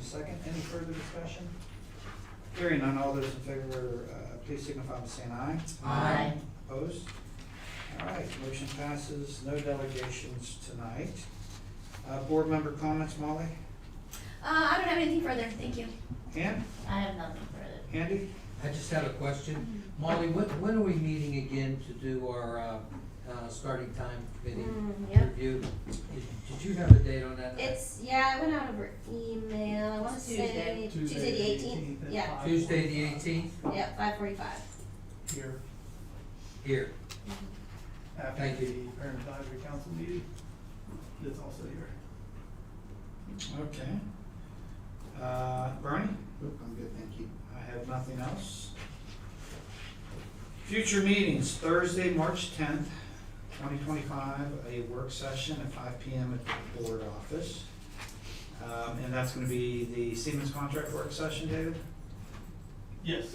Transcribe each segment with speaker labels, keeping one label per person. Speaker 1: second. Any further discussion? Hearing on all those in favor, uh, please signify by saying aye.
Speaker 2: Aye.
Speaker 1: Opposed? All right, motion passes. No delegations tonight. Uh, Board member comments, Molly?
Speaker 3: Uh, I don't have anything further, thank you.
Speaker 1: Ann?
Speaker 2: I have nothing further.
Speaker 1: Andy?
Speaker 4: I just had a question. Molly, when, when are we meeting again to do our, uh, uh, starting time committee
Speaker 3: Mm, yep.
Speaker 4: review? Did- Did you have a date on that?
Speaker 3: It's, yeah, I went out over email, I wanna say
Speaker 5: Tuesday.
Speaker 3: Tuesday the eighteenth, yeah,
Speaker 4: Tuesday, the eighteenth,
Speaker 3: yeah, five forty-five.
Speaker 5: Here,
Speaker 4: here.
Speaker 5: after
Speaker 4: Thank
Speaker 5: the
Speaker 4: you.
Speaker 5: parent advisory council meeting, that's also here.
Speaker 1: Okay. Uh, Bernie?
Speaker 6: Nope, I'm good, thank you.
Speaker 1: I have nothing else. Future meetings, Thursday, March tenth, twenty twenty-five, a work session at five P M at the board office. Um, and that's gonna be the Siemens contract work session, David?
Speaker 5: Yes.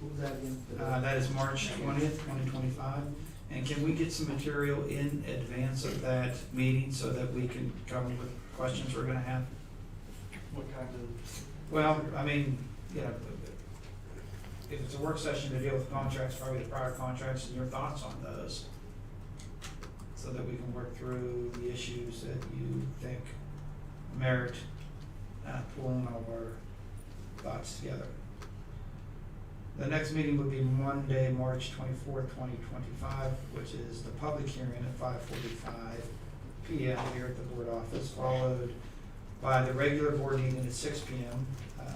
Speaker 6: What was that again?
Speaker 1: Uh, that is March twentieth, twenty twenty-five. And can we get some material in advance of that meeting so that we can come with questions we're gonna have?
Speaker 5: What kind of?
Speaker 1: Well, I mean, you know, if it's a work session to deal with contracts, probably the prior contracts and your thoughts on those. So that we can work through the issues that you think merit uh, pulling our thoughts together. The next meeting would be Monday, March twenty-fourth, twenty twenty-five, which is the public hearing at five forty-five P M here at the board office, followed by the regular board meeting at six P M, um,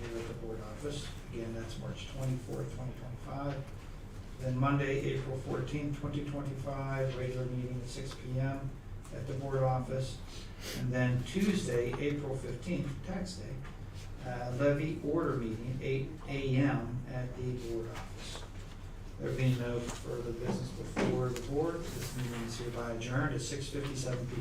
Speaker 1: here at the board office. Again, that's March twenty-fourth, twenty twenty-five. Then Monday, April fourteenth, twenty twenty-five, regular meeting at six P M at the board office. And then Tuesday, April fifteenth, tax day, uh, levy order meeting, eight A M at the board office. There being no further business before the board, this meeting is hereby adjourned at six fifty-seven P M.